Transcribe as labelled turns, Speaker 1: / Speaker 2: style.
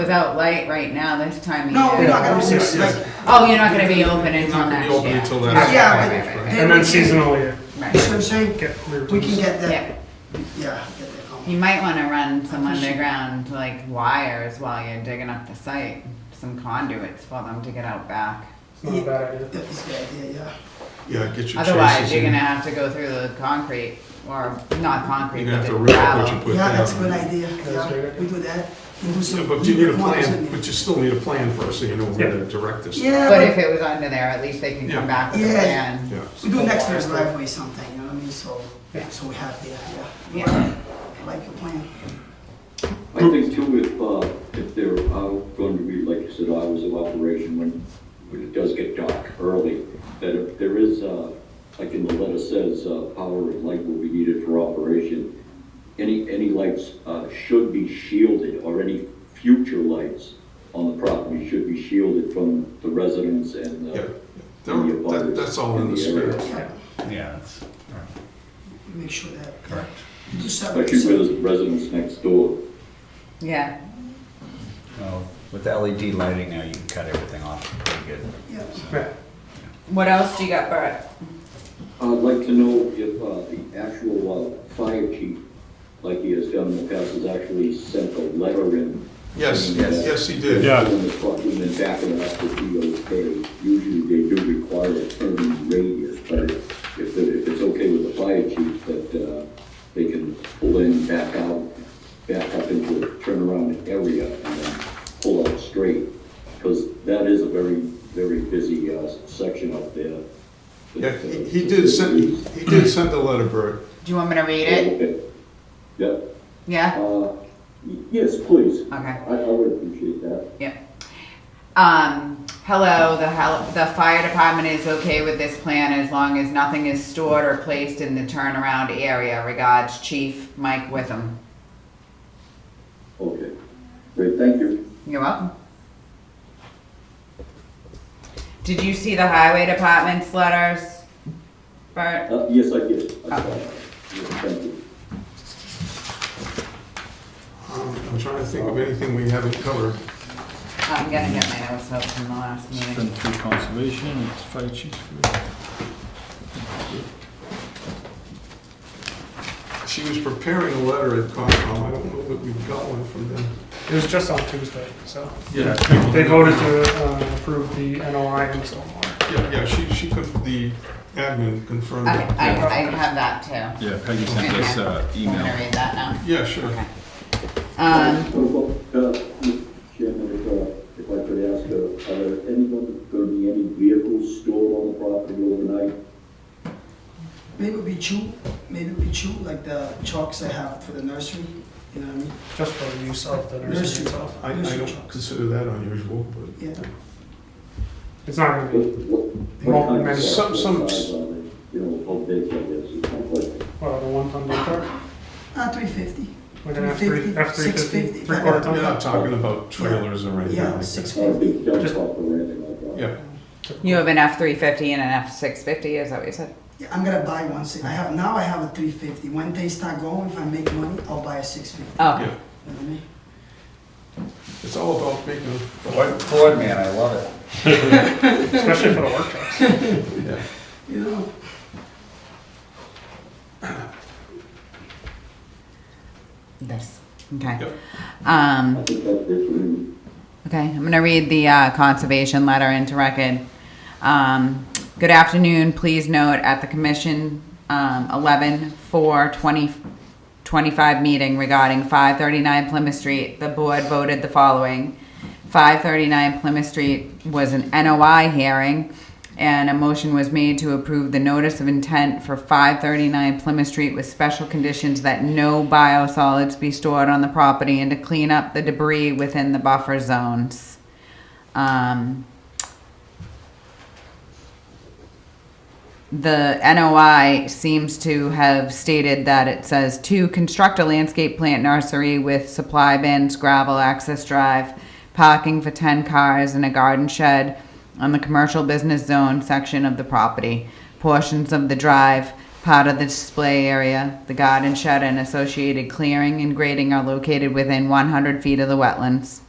Speaker 1: Without light right now, this time of
Speaker 2: No,
Speaker 1: year.
Speaker 2: we're not gonna be six,
Speaker 3: Yeah.
Speaker 2: like,
Speaker 1: Oh, you're not gonna be open
Speaker 3: It's
Speaker 1: until
Speaker 3: not gonna
Speaker 1: next
Speaker 3: be open
Speaker 1: year.
Speaker 3: until next
Speaker 2: Yeah,
Speaker 3: year.
Speaker 1: right, right, right.
Speaker 3: And
Speaker 4: And then seasonally, you
Speaker 2: you
Speaker 1: Right.
Speaker 2: know what I'm saying?
Speaker 4: get reruns.
Speaker 2: We can get that,
Speaker 1: Yeah,
Speaker 2: yeah, get that going.
Speaker 1: you might wanna run some underground, like wires while you're digging up the site, some conduits for them to get out back.
Speaker 4: It's not a bad idea.
Speaker 2: That's a good idea, yeah.
Speaker 3: Yeah, get your
Speaker 1: Otherwise,
Speaker 3: traces
Speaker 1: you're
Speaker 3: in.
Speaker 1: gonna have to go through the concrete, or not concrete,
Speaker 3: You're gonna
Speaker 1: but
Speaker 3: have to
Speaker 1: the
Speaker 3: rip up what you
Speaker 1: gravel.
Speaker 3: put down.
Speaker 2: Yeah, that's a good idea,
Speaker 4: That's a
Speaker 2: yeah,
Speaker 4: great
Speaker 2: we do that. And do some-
Speaker 3: Yeah, But you need a plan,
Speaker 2: Yeah,
Speaker 3: but you still need a plan first, so you know where to direct this.
Speaker 1: But
Speaker 2: Yeah,
Speaker 1: if it was under there, at least they can come
Speaker 3: Yeah.
Speaker 1: back with a
Speaker 2: Yeah.
Speaker 1: plan.
Speaker 3: Yeah.
Speaker 2: we do next year's driveway something, you know what I mean, so, so we have the, yeah.
Speaker 1: Yeah.
Speaker 2: I like your plan.
Speaker 5: I think too, if, uh, if there are going to be, like you said, hours of operation when, when it does get dark early, that if there is, uh, like in the letter says, uh, power and light will be needed for operation, any, any lights, uh, should be shielded, or any future lights on the property should be shielded from the residents and,
Speaker 3: Yeah.
Speaker 5: uh, and the
Speaker 3: That- that-
Speaker 5: abutters
Speaker 3: that's all in the
Speaker 5: area.
Speaker 3: spirit.
Speaker 2: Yeah,
Speaker 6: Yeah, that's right.
Speaker 7: uh,
Speaker 2: make sure that,
Speaker 6: correct.
Speaker 2: you do seven,
Speaker 5: Especially
Speaker 2: seven,
Speaker 5: with those residents next door.
Speaker 1: Yeah,
Speaker 6: Well, with the LED lighting now, you can cut everything off pretty good.
Speaker 2: yeah.
Speaker 4: Yeah.
Speaker 1: what else do you got, Bert?
Speaker 5: I'd like to know if uh, the actual uh, fire chief, like he has done in the past, has actually sent a letter in.
Speaker 3: Yes,
Speaker 5: And, uh,
Speaker 3: yes, he did.
Speaker 7: Yeah.
Speaker 5: On the truck, and then backing up the DOK. Usually they do require a turn radius, but if, it- if it's okay with the fire chief, that uh, they can pull in, back out, back up into a turnaround area and then pull out straight. Because that is a very, very busy uh, section up there.
Speaker 3: Yeah, he he did send, he did send a letter, Bert.
Speaker 1: Do you want me to read it?
Speaker 5: Okay. Yeah,
Speaker 1: Yeah?
Speaker 5: uh, y- yes, please.
Speaker 1: Okay.
Speaker 5: I, I would appreciate that.
Speaker 1: Yep. Um, hello, the hel- the fire department is okay with this plan as long as nothing is stored or placed in the turnaround area. Regards, Chief Mike Witham.
Speaker 5: Okay, great, thank you.
Speaker 1: You're welcome. Did you see the highway department's letters, Bert?
Speaker 5: Uh, yes, I did. I saw that. Yes, Thank you.
Speaker 3: Um, I'm trying to think of anything we haven't covered.
Speaker 1: I'm gonna get my notes up from the last meeting.
Speaker 7: Been through conservation, it's fire chief's.
Speaker 3: She was preparing a letter at Concom. I don't know that we've got one from them.
Speaker 4: It was just on Tuesday, so
Speaker 3: Yeah.
Speaker 4: they voted to uh, approve the NOI and stormwater.
Speaker 3: Yeah, yeah, she, she, conf- the admin confirmed
Speaker 1: I,
Speaker 3: it.
Speaker 1: I, I have that too.
Speaker 7: Yeah, Peggy sent us uh
Speaker 1: I'm gonna
Speaker 7: email.
Speaker 1: read that now.
Speaker 3: Yeah, sure.
Speaker 1: Um,
Speaker 5: What about, uh, Mr. Chairman, if, uh, if I could ask, uh, are there anyone, gonna be any vehicles stored on the property overnight?
Speaker 2: Maybe it'll be chew, maybe it'll be chew, like the chalks I have for the nursery, you know what I mean?
Speaker 4: Just for the use of the nursery
Speaker 2: Nursery
Speaker 4: itself.
Speaker 3: I, I
Speaker 2: Nursery
Speaker 3: don't
Speaker 2: chalks,
Speaker 3: consider that unusual, but.
Speaker 2: yeah.
Speaker 4: It's not gonna
Speaker 5: What,
Speaker 4: be,
Speaker 5: what-
Speaker 4: Well,
Speaker 5: what kind of
Speaker 4: maybe-
Speaker 3: Some- some-
Speaker 5: cars are they? You know, how big, I guess, is my question.
Speaker 4: well, the one ton dump truck,
Speaker 2: Ah, three fifty,
Speaker 4: like an F three, F three fifty,
Speaker 2: 650,
Speaker 4: three quarter
Speaker 3: We're
Speaker 4: ton dump.
Speaker 3: not talking about trailers or anything
Speaker 2: yeah,
Speaker 3: like
Speaker 2: six
Speaker 3: that.
Speaker 5: Not a
Speaker 2: fifty.
Speaker 5: uh, big dump
Speaker 4: Just-
Speaker 5: truck or anything like that?
Speaker 3: Yeah,
Speaker 1: you have an F three fifty and an F six fifty, is that what you said?
Speaker 2: Yeah, I'm gonna buy one. si- I have now. I have a 350. When they start going, if I make money, I'll buy a 650.
Speaker 1: Oh,
Speaker 3: yeah.
Speaker 2: You know what I mean?
Speaker 3: It's all about making,
Speaker 6: Ford, Ford man, I love it.
Speaker 4: Especially for the work trucks.
Speaker 3: yeah.
Speaker 2: You know,
Speaker 1: this, okay.
Speaker 3: Yep.
Speaker 1: Um,
Speaker 5: I think that's different.
Speaker 1: Okay, I'm going to read the uh, conservation letter into record. Um, Good afternoon, please note at the commission um, 11 4 20 25 meeting regarding 539 Plymouth Street, the board voted the following. 539 Plymouth Street was an NOI hearing, and a motion was made to approve the notice of intent for 539 Plymouth Street with special conditions that no biosolids be stored on the property and to clean up the debris within the buffer zones. Um, the NOI seems to have stated that it says to construct a landscape plant nursery with supply bins, gravel access drive, parking for 10 cars, and a garden shed on the commercial business zone section of the property. Portions of the drive, part of the display area, the garden shed, and associated clearing and grading are located within 100 feet of the wetlands.